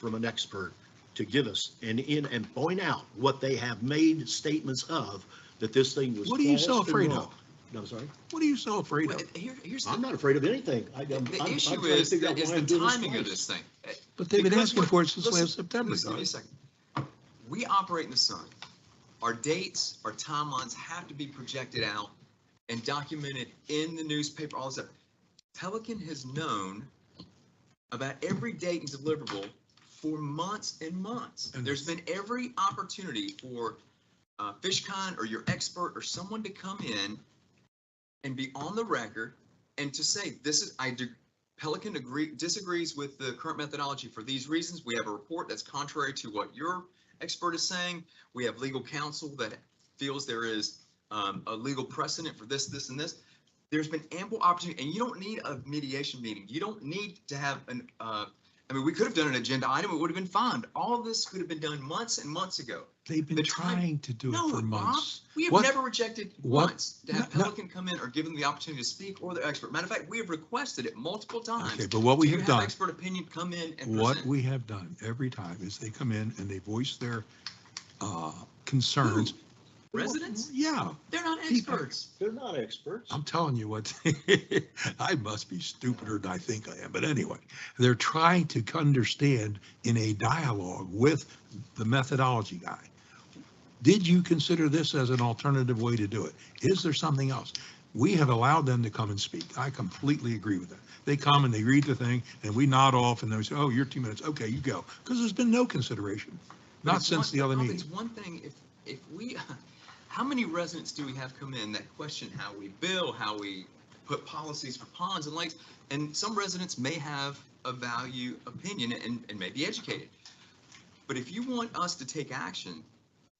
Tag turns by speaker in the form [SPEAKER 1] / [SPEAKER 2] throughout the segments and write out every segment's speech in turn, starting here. [SPEAKER 1] from an expert to give us and in, and point out what they have made statements of, that this thing was
[SPEAKER 2] What are you so
[SPEAKER 1] false and
[SPEAKER 2] afraid
[SPEAKER 1] wrong.
[SPEAKER 2] of?
[SPEAKER 1] No, I'm sorry.
[SPEAKER 2] What are you so afraid
[SPEAKER 3] Well,
[SPEAKER 2] of?
[SPEAKER 3] Here, here's,
[SPEAKER 1] I'm
[SPEAKER 3] the
[SPEAKER 1] not afraid of anything. I, I'm, I'm
[SPEAKER 3] the
[SPEAKER 1] I'm
[SPEAKER 3] issue
[SPEAKER 1] trying to
[SPEAKER 3] is,
[SPEAKER 1] figure out
[SPEAKER 3] is
[SPEAKER 1] why I'm
[SPEAKER 3] the
[SPEAKER 1] doing this
[SPEAKER 3] timing of
[SPEAKER 1] twice.
[SPEAKER 3] this thing. Uh,
[SPEAKER 2] But they've been
[SPEAKER 3] Because
[SPEAKER 2] asking for it since
[SPEAKER 3] listen,
[SPEAKER 2] last September,
[SPEAKER 3] Listen, give me
[SPEAKER 2] Don.
[SPEAKER 3] a second. We operate in the sun. Our dates, our timelines have to be projected out and documented in the newspaper, all this stuff. Pelican has known about every date and deliverable for months and months.
[SPEAKER 2] And
[SPEAKER 3] There's been every opportunity for uh, FishCon or your expert or someone to come in and be on the record and to say, this is, I, do. Pelican agree, disagrees with the current methodology for these reasons. We have a report that's contrary to what your expert is saying. We have legal counsel that feels there is um, a legal precedent for this, this, and this. There's been ample opportunity, and you don't need a mediation meeting. You don't need to have an, uh, I mean, we could have done an agenda item. It would have been fine. All of this could have been done months and months ago.
[SPEAKER 2] They've been
[SPEAKER 3] the time-
[SPEAKER 2] trying to do
[SPEAKER 3] No,
[SPEAKER 2] it for
[SPEAKER 3] Rob,
[SPEAKER 2] months.
[SPEAKER 3] We have
[SPEAKER 2] What-
[SPEAKER 3] never rejected
[SPEAKER 2] what-
[SPEAKER 3] once to have
[SPEAKER 2] no, no.
[SPEAKER 3] Pelican come in or give them the opportunity to speak or their expert. Matter of fact, we have requested it multiple times.
[SPEAKER 2] Okay, but what we
[SPEAKER 3] You
[SPEAKER 2] have done,
[SPEAKER 3] Expert opinion come in and
[SPEAKER 2] what
[SPEAKER 3] present.
[SPEAKER 2] we have done every time is they come in and they voice their uh, concerns.
[SPEAKER 3] Residents?
[SPEAKER 2] Yeah,
[SPEAKER 3] They're not
[SPEAKER 2] People.
[SPEAKER 3] experts.
[SPEAKER 1] They're not experts.
[SPEAKER 2] I'm telling you what, I must be stupider than I think I am, but anyway, they're trying to understand in a dialogue with the methodology guy. Did you consider this as an alternative way to do it? Is there something else? We have allowed them to come and speak. I completely agree with that. They come and they read the thing and we nod off and they say, oh, you're two minutes. Okay, you go. Because there's been no consideration,
[SPEAKER 3] But
[SPEAKER 2] not
[SPEAKER 3] it's
[SPEAKER 2] since
[SPEAKER 3] one-
[SPEAKER 2] the other
[SPEAKER 3] Rob,
[SPEAKER 2] meeting.
[SPEAKER 3] It's one thing if, if we, how many residents do we have come in that question how we bill, how we put policies for ponds and lakes? And some residents may have a value opinion and, and may be educated. But if you want us to take action,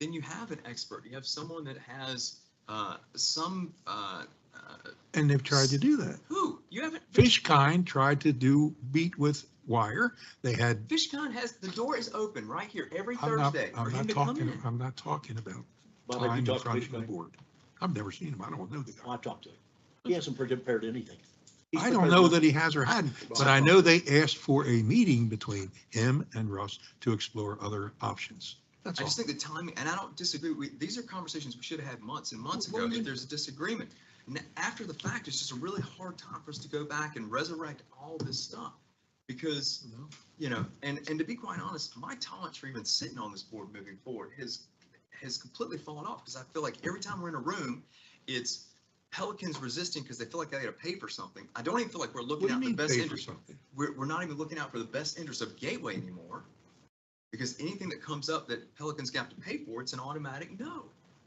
[SPEAKER 3] then you have an expert. You have someone that has, uh, some, uh, uh,
[SPEAKER 2] And they've tried to do that.
[SPEAKER 3] who? You haven't,
[SPEAKER 2] Fishkind tried to do beat with wire. They had
[SPEAKER 3] FishCon has, the door is open right here every
[SPEAKER 2] I'm not,
[SPEAKER 3] Thursday for
[SPEAKER 2] I'm
[SPEAKER 3] him
[SPEAKER 2] not
[SPEAKER 3] to come
[SPEAKER 2] talking,
[SPEAKER 3] in.
[SPEAKER 2] I'm not talking about
[SPEAKER 1] Bob, have
[SPEAKER 2] time
[SPEAKER 1] you
[SPEAKER 2] in
[SPEAKER 1] talked to
[SPEAKER 2] front of the
[SPEAKER 1] Fishman?
[SPEAKER 2] board. I've never seen him. I don't know the guy.
[SPEAKER 1] I talked to him. He hasn't prepared anything. He's
[SPEAKER 2] I don't
[SPEAKER 1] prepared
[SPEAKER 2] know
[SPEAKER 1] nothing.
[SPEAKER 2] that he has or hadn't, but I
[SPEAKER 1] Bob.
[SPEAKER 2] know they asked for a meeting between him and Russ to explore other options. That's
[SPEAKER 3] I
[SPEAKER 2] all.
[SPEAKER 3] just think the timing, and I don't disagree, we, these are conversations we should have had months and months
[SPEAKER 1] Well,
[SPEAKER 3] ago,
[SPEAKER 1] well, you-
[SPEAKER 3] if there's a disagreement. N- After the fact, it's just a really hard time for us to go back and resurrect all this stuff. Because, you know, and, and to be quite honest, my tolerance for even sitting on this board moving forward has, has completely fallen off, because I feel like every time we're in a room, it's Pelicans resisting because they feel like they gotta pay for something. I don't even feel like we're
[SPEAKER 2] What
[SPEAKER 3] looking
[SPEAKER 2] do you
[SPEAKER 3] out the
[SPEAKER 2] mean
[SPEAKER 3] best
[SPEAKER 2] pay for
[SPEAKER 3] interest
[SPEAKER 2] something?
[SPEAKER 3] we're, we're not even looking out for the best interest of Gateway anymore. Because anything that comes up that Pelican's got to pay for, it's an automatic no.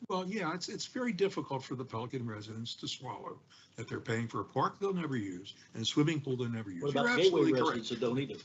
[SPEAKER 2] Well, yeah, it's, it's very difficult for the Pelican residents to swallow that they're paying for a park they'll never use and a swimming pool they'll never use.
[SPEAKER 1] What
[SPEAKER 2] You're
[SPEAKER 1] about Gateway
[SPEAKER 2] absolutely correct.
[SPEAKER 1] residents that don't either?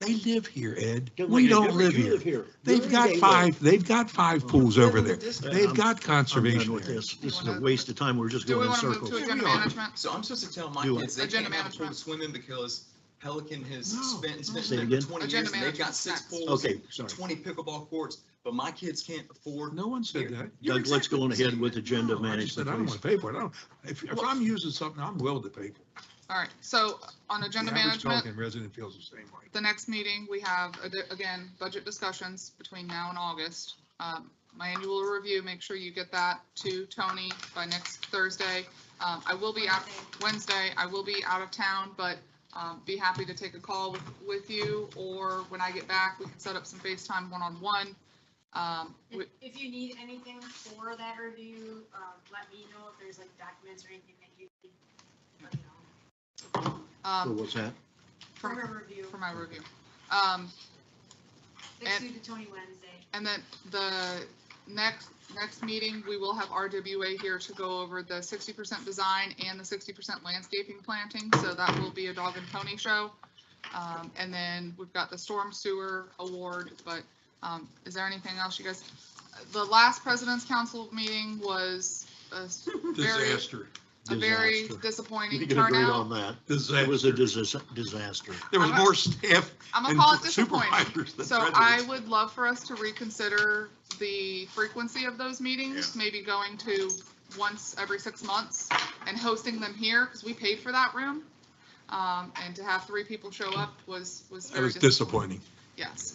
[SPEAKER 2] They live here, Ed.
[SPEAKER 1] Don't
[SPEAKER 2] We
[SPEAKER 1] you-
[SPEAKER 2] don't
[SPEAKER 1] you
[SPEAKER 2] live here.
[SPEAKER 1] You're
[SPEAKER 2] They've
[SPEAKER 1] in
[SPEAKER 2] got
[SPEAKER 1] Gateway.
[SPEAKER 2] five, they've got five pools over there.
[SPEAKER 1] Yeah,
[SPEAKER 2] They've
[SPEAKER 1] I'm-
[SPEAKER 2] got
[SPEAKER 1] I'm done
[SPEAKER 2] conservation
[SPEAKER 1] with
[SPEAKER 2] areas.
[SPEAKER 1] this. This is a waste of time. We're just
[SPEAKER 4] Do we
[SPEAKER 1] going in
[SPEAKER 4] want to move
[SPEAKER 1] circles.
[SPEAKER 4] to agenda
[SPEAKER 2] We are.
[SPEAKER 4] management?
[SPEAKER 3] So I'm supposed to tell my
[SPEAKER 1] Do it.
[SPEAKER 3] kids they can't
[SPEAKER 4] Agenda
[SPEAKER 3] have a pool to
[SPEAKER 4] management.
[SPEAKER 3] swim in because Pelican has
[SPEAKER 2] No.
[SPEAKER 3] spent, spent
[SPEAKER 1] Say it
[SPEAKER 3] for
[SPEAKER 1] again?
[SPEAKER 3] twenty years,
[SPEAKER 4] Agenda
[SPEAKER 3] and they've got
[SPEAKER 4] management
[SPEAKER 3] six
[SPEAKER 4] sucks.
[SPEAKER 3] pools.
[SPEAKER 1] Okay, sorry.
[SPEAKER 3] Twenty pickleball courts, but my kids can't afford.
[SPEAKER 2] No one said that.
[SPEAKER 3] You're
[SPEAKER 1] Doug, let's
[SPEAKER 3] exactly
[SPEAKER 1] go on
[SPEAKER 3] the same.
[SPEAKER 1] ahead with agenda
[SPEAKER 2] No, I just said I don't
[SPEAKER 1] management, please.
[SPEAKER 2] want to pay for it. I don't, if, if I'm using something, I'm willing to pay for it.
[SPEAKER 4] All right, so on
[SPEAKER 2] The
[SPEAKER 4] agenda
[SPEAKER 2] average
[SPEAKER 4] management,
[SPEAKER 2] Pelican resident feels the same way.
[SPEAKER 4] the next meeting, we have, ad- again, budget discussions between now and August. Um, My annual review, make sure you get that to Tony by next Thursday. Um, I will be out, Wednesday, I will be out of town, but um, be happy to take a call with, with you, or when I get back, we can set up some FaceTime one-on-one. Um, we-
[SPEAKER 5] If if you need anything for that review, um, let me know if there's like documents or anything that you need. let me know.
[SPEAKER 1] So
[SPEAKER 4] um,
[SPEAKER 1] what's that?
[SPEAKER 4] For
[SPEAKER 5] For a review,
[SPEAKER 4] for my review. Um,
[SPEAKER 5] next
[SPEAKER 4] and-
[SPEAKER 5] week to Tony Wednesday.
[SPEAKER 4] And then the next, next meeting, we will have RWA here to go over the sixty percent design and the sixty percent landscaping planting, so that will be a dog and pony show. Um, and then we've got the storm sewer award, but, um, is there anything else you guys? The last president's council meeting was a s- very,
[SPEAKER 2] Disaster,
[SPEAKER 4] a very
[SPEAKER 1] Disaster. We
[SPEAKER 4] disappointing
[SPEAKER 1] can agree on
[SPEAKER 4] turnout.
[SPEAKER 1] that. It was
[SPEAKER 2] disaster.
[SPEAKER 1] a disas- disaster.
[SPEAKER 2] There was
[SPEAKER 4] I'm a-
[SPEAKER 2] more staff
[SPEAKER 4] I'm gonna
[SPEAKER 2] and
[SPEAKER 4] call it disappointing.
[SPEAKER 2] supervisors than
[SPEAKER 4] So I
[SPEAKER 2] residents.
[SPEAKER 4] would love for us to reconsider the frequency of those meetings, maybe going to once every six months and hosting them here, because we paid for that room. Um, and to have three people show up was, was
[SPEAKER 2] It
[SPEAKER 4] very
[SPEAKER 2] was
[SPEAKER 4] disappointing.
[SPEAKER 2] disappointing.
[SPEAKER 4] yes.